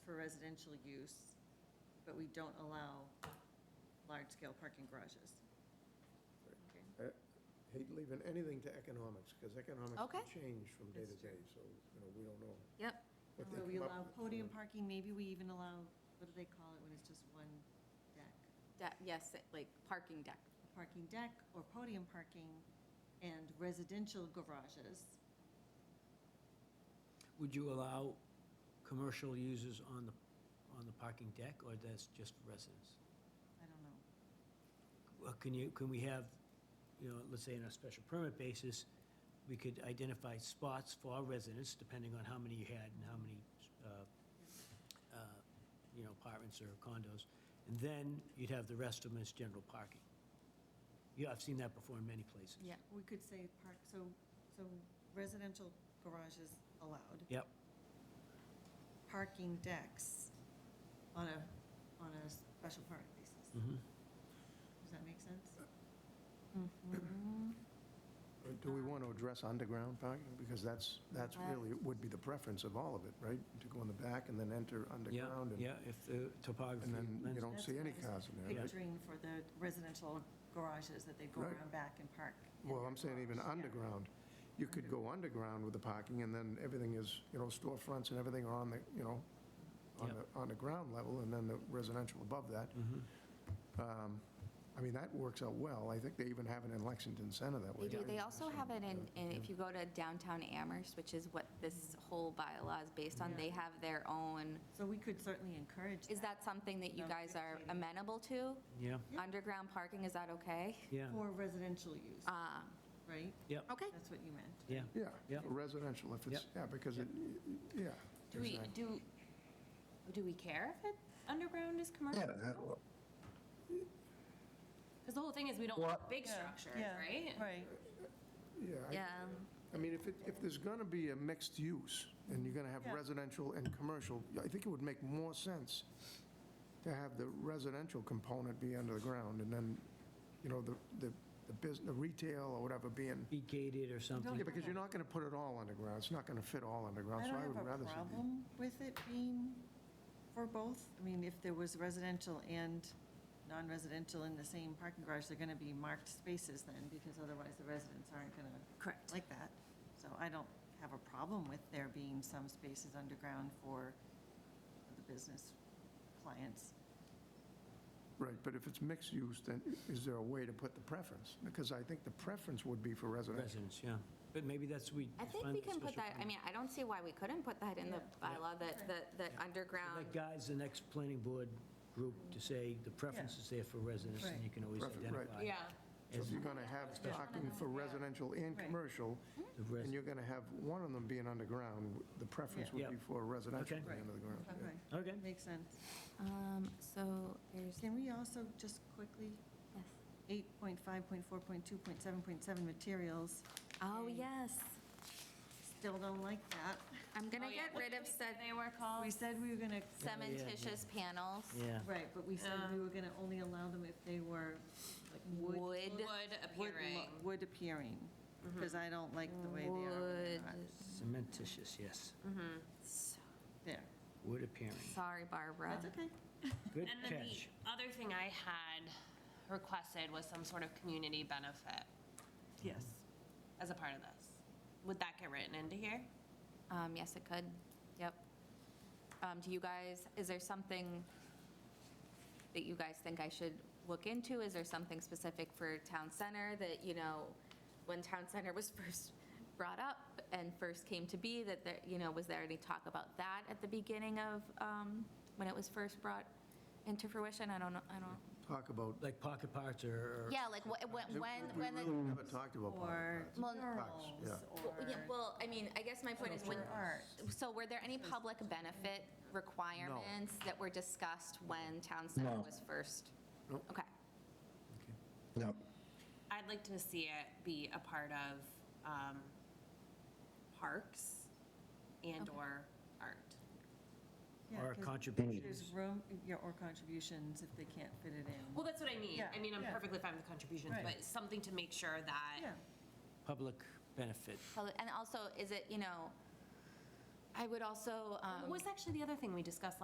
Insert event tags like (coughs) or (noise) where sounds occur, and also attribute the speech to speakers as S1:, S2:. S1: residential use, but we don't allow large-scale parking garages. Okay.
S2: Hate leaving anything to economics, because economics
S3: Okay.
S2: can change from day to
S1: That's true.
S2: day, so, you know, we don't know.
S3: Yep.
S2: what they
S1: So we
S2: come up
S1: allow
S2: with.
S1: podium parking, maybe we even allow, what do they call it when it's just one deck?
S3: Deck, yes, like parking deck.
S1: A Parking deck or podium parking and residential garages.
S4: Would you allow commercial users on the, on the parking deck, or that's just residents?
S1: I don't know.
S4: Well, Can you, can we have, you know, let's say on a special permit basis, we could identify spots for residents, depending on how many you had and how many, uh, uh, you know, apartments or condos, and then you'd have the rest of them as general parking. Yeah, I've seen that before in many places.
S1: Yeah, we could say park, so, so residential garages allowed.
S4: Yep,
S1: Parking decks on a, on a special permit basis.
S2: Mm-hmm.
S4: mhm.
S1: Does that make
S2: (coughs)
S1: sense?
S2: But Uh, Do we want to address underground parking? Because that's, that's really, would be the preference of all of it, right? To go in the back and then enter
S4: yeah,
S2: underground. and-
S4: yeah, if the topography.
S2: And then
S4: lends-
S2: you don't see any
S1: That's what I was
S2: cars in there. right?
S1: Picturing for the residential garages that they go
S2: Right.
S1: around back and park. in
S2: Well,
S1: their
S2: I'm saying even
S1: garage. Yeah.
S2: underground. You could go underground with the parking, and then everything is, you know, storefronts and everything are on the, you know, on the,
S4: Yep.
S2: on the ground level, and then the residential above that.
S4: Mm-hmm.
S2: Um, I mean, that works out well. I think they even have it in Lexington Center that way.
S3: They do, they also have it in,
S2: Yeah.
S3: in- if you go to downtown Amherst, which is what this whole bylaw is based on, they
S1: Yeah.
S3: have their own,
S1: So we could certainly encourage
S3: is that something that you
S1: No,
S3: guys are
S1: dictating.
S3: amenable to?
S4: Yeah,
S3: Underground parking, is that okay?
S4: yeah,
S1: For residential use,
S3: Uh,
S1: right?
S4: yep,
S3: Okay.
S1: That's what you meant.
S4: yeah.
S2: Yeah,
S4: Yeah.
S2: for residential, if it's,
S4: Yep.
S2: yeah, because it, yeah.
S3: Do we,
S2: exactly.
S3: do, do we care if it, underground is commercial? Because the whole thing is we don't want big structures, right?
S1: Right.
S2: Yeah. I-
S3: Yeah.
S2: I mean, if, it- if there's going to be a mixed use, and you're going to have
S1: Yeah.
S2: residential and commercial, I think it would make more sense to have the residential component be under the ground, and then, you know, the, the, the business, the retail or whatever being,
S4: Be gated or something.
S2: yeah, because you're not going to put it all underground, it's not going to fit all underground,
S1: I
S2: so I
S1: don't
S2: would
S1: have a
S2: rather see. the-
S1: problem with it being for both. I mean, if there was residential and non-residential in the same parking garage, they're going to be marked spaces then, because otherwise the residents aren't going to.
S3: Correct.
S1: Like that. So I don't have a problem with there being some spaces underground for the business clients.
S2: Right, but if it's mixed use, then is there a way to put the preference? Because I think the preference would be for residential.
S4: Residents, yeah. But maybe that's we.
S3: I think
S4: define
S3: we
S4: the
S3: can put
S4: special
S3: that, I
S4: permit.
S3: mean, I don't see why we couldn't put that in the bylaw, that, that, that
S4: That
S3: underground,
S4: guides the next planning board group to say the preference is there for residents, and you can always
S2: Right. Preference, right.
S4: identify.
S3: yeah.
S2: So if you're going to have parking for residential and
S1: Right.
S2: commercial,
S4: The res-
S2: And you're going to have one of them being underground, the preference would
S4: Yeah.
S2: be for residential
S4: Okay.
S2: being underground. yeah.
S4: Okay.
S1: Makes sense.
S3: Um, so there's,
S1: Can we also just quickly,
S3: yes.
S1: 8.5.4.2.7.7 materials,
S3: oh, yes,
S1: still don't like that.
S3: I'm gonna get rid of said
S5: They were called,
S1: We said we were going to
S3: cementitious panels.
S4: Yeah.
S1: Right, but we said we were going to only allow them if they were like wood. wood
S3: Wood.
S5: Wood
S1: lo-
S5: appearing.
S1: Wood appearing, because I don't like the way they are. when they're not.
S3: Wood.
S4: Cementitious, yes.
S1: There,
S4: Wood appearing.
S3: Sorry, Barbara.
S1: that's okay.
S4: Good
S5: and then
S4: catch.
S5: the other thing I had requested was some sort of community benefit
S1: Yes.
S5: as a part of this. Would that get written into here?
S3: Um, yes, it could, yep. Um, do you guys, is there something that you guys think I should look into? Is there something specific for Town Center that, you know, when Town Center was (laughs) first brought up and first came to be, that there, you know, was there any talk about that at the beginning of, um, when it was first brought into fruition? I don't know, I don't,
S2: Talk about,
S4: Like pocket parts or. or-
S3: yeah, like, wh-
S2: we
S3: when, when, when the
S2: really never talked about
S1: Or
S2: parking
S3: Well,
S1: murals,
S2: yeah.
S3: Well, yeah,
S1: or
S3: Well, I mean, I guess my point is, when,
S1: Sculpture art.
S3: so were there any public benefit requirements that were discussed when Town Center was first?
S2: Nope.
S3: Okay,
S6: No.
S5: I'd like to see it be a part of um, parks and/or art.
S1: Yeah,
S4: Or
S1: 'cause There's
S4: contributions.
S1: room, yeah, or contributions if they can't fit it in.
S5: Well, that's what I mean.
S1: Yeah,
S5: I mean, I'm
S1: yeah.
S5: perfectly fine with the contributions,
S1: Right.
S5: but something to make sure that
S1: Yeah,
S4: Public benefit.
S3: So- and also, um, is it, you know, I would also. um,
S5: What was actually the other thing we discussed